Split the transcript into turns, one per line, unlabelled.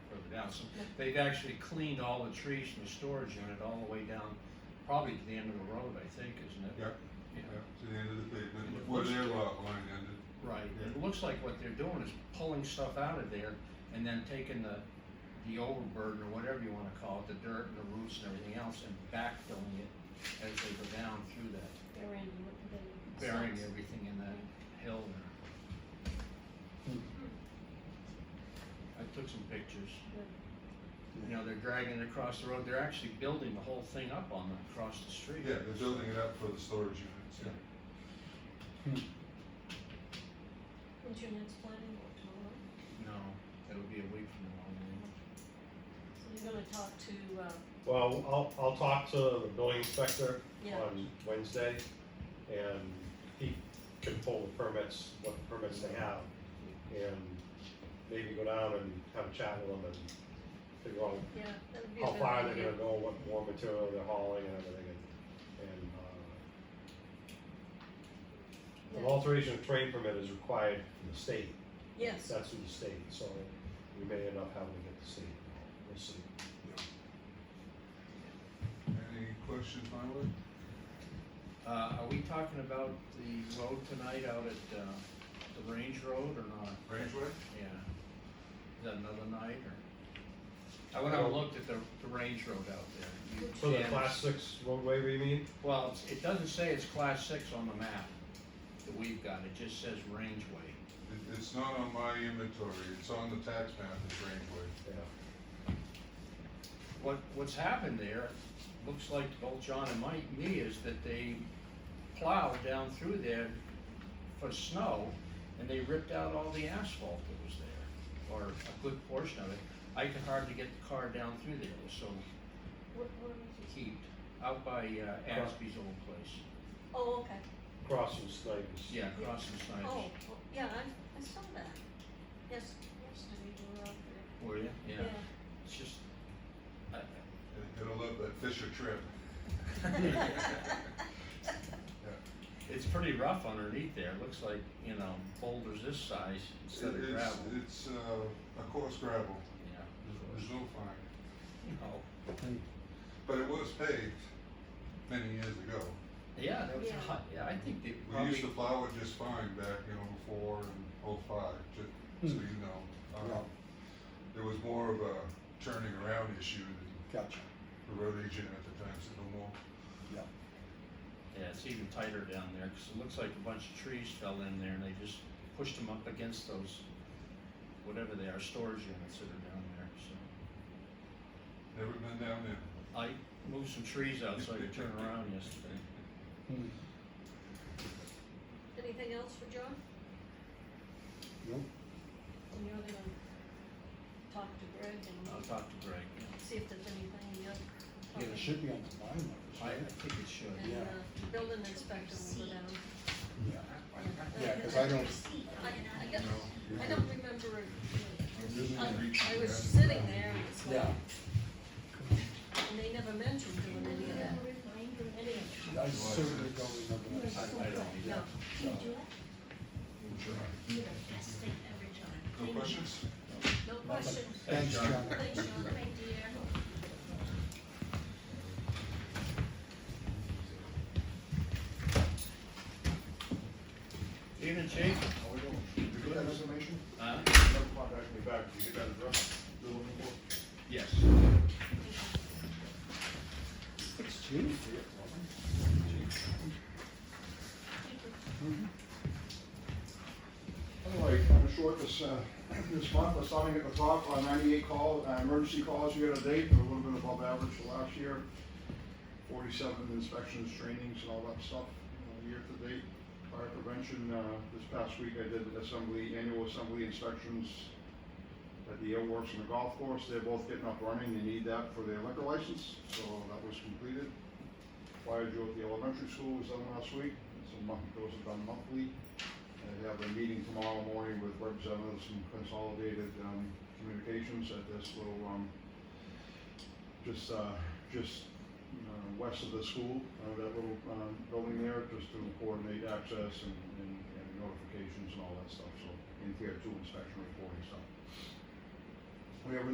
some, they've actually cleaned all the trees in the storage unit all the way down, probably to the end of the road, I think, isn't it?
Yep.
Yeah,
Yep, to the end of the pavement,
And it
before
looks-
their lot line ended.
right, and it looks like what they're doing is pulling stuff out of there and then taking the, the overburden or whatever you wanna call it, the dirt and the roots and everything else and backfilling it as they go down through that,
Burying, what do they?
burying
socks?
everything in that hill there. I took some pictures. You know, they're dragging it across the road, they're actually building the whole thing up on the, across the street.
Yeah, they're building it up for the storage units, yeah.
When's your next planning board tomorrow?
No, it'll be a week from now, I mean.
So you're gonna talk to, uh,
Well, I'll, I'll talk to the building inspector
yeah,
on Wednesday, and he can pull the permits, what permits they have, and maybe go down and have a chat with them and figure out
yeah, that would be a
how
good
far they're
idea.
gonna go, what more material they're hauling and everything, and, and, uh, an
Yeah.
alteration of train permit is required from the state,
Yes,
that's from the state, so we may end up having to get the state, involved. we'll see.
Any questions, Marla?
Uh, are we talking about the road tonight out at, uh, the Range Road or not?
Rangeway?
Yeah. Is that another night or? I went out and looked at the, the Range Road out there. You-
For the
yeah,
class six roadway, you mean?
Well, it's- it doesn't say it's class six on the map that we've got, it just says Range Way.
It, it's not on my inventory, it's on the tax map, it's Rangeway.
Yeah.
What, what's happened there, looks like to both John and Mike, me, is that they plowed down through there for snow, and they ripped out all the asphalt that was there, or a good portion of it. I could hardly get the car down through there, it was so
what, what was it?
heaped, out by uh, Asby's old place.
Oh, okay,
Crossing Snipers.
Yeah, crossing
oh,
Snyder's.
well, yeah, I, I saw that. Yes, yesterday you were out there.
Were you? Yeah, it's just, I,
It- It'll look like Fisher Trip.
it's pretty rough underneath there, it looks like, you know, boulders this size instead of
It's,
gravel.
it's, uh, a coarse gravel, There's-
Yeah.
there's no fine.
No.
But it was paved many years ago.
Yeah, that was
Yeah.
hot. Yeah, I think they
We used
probably.
to plow it just fine back, you know, before and oh five, just so
Hmm.
you know. Um, There was more of a turning around issue than
Gotcha.
the road agent at the time said, no more.
Yeah, it's even tighter down there because it looks like a bunch of trees fell in there and they just pushed them up against those, whatever they are, storage units that are down there. So
Never been down there.
I moved some trees out so I could turn around yesterday.
Hmm.
Anything else for John?
No.
And you're gonna talk to Greg
I'll
and
talk to Greg. yeah.
see if there's anything you
Yeah, it should be on the line,
I, I
right?
think it should.
And,
yeah.
uh, the building inspector will go down.
Yeah. Yeah, cause I don't,
I, I guess, I don't remember it. Um,
Really
I, I was
reaching
sitting there and it's like,
yeah,
and they never mentioned doing any of that, any of it.
I certainly don't remember
I,
that.
I don't need that.
No questions?
No question.
Thanks, John.
Thanks, John.
Evening, Chief.
How we doing? Did you get that information?
Uh,
Never contacted me back. Did you get that address? You're looking for?
yes.
It's June.
Anyway, kind of short this, uh, this month, but starting at the top, uh, ninety-eight call, uh, emergency calls year to date, they're a little bit above average for last year. Forty-seven inspections, trainings, and all that stuff, you know, year to date. Fire prevention, uh, this past week I did assembly, annual assembly inspections at the airworks and the golf course, they're both getting up running, they need that for their liquor license, so that was completed. Fire drill at the elementary school was done last week, it's a month, those are done monthly. I have a meeting tomorrow morning with representatives from Consolidated um, Communications at this little, um, just, uh, just uh, west of the school, uh, that little um, building there, just to coordinate access and and and notifications and all that stuff, so, and we have two inspection reporting stuff. We have a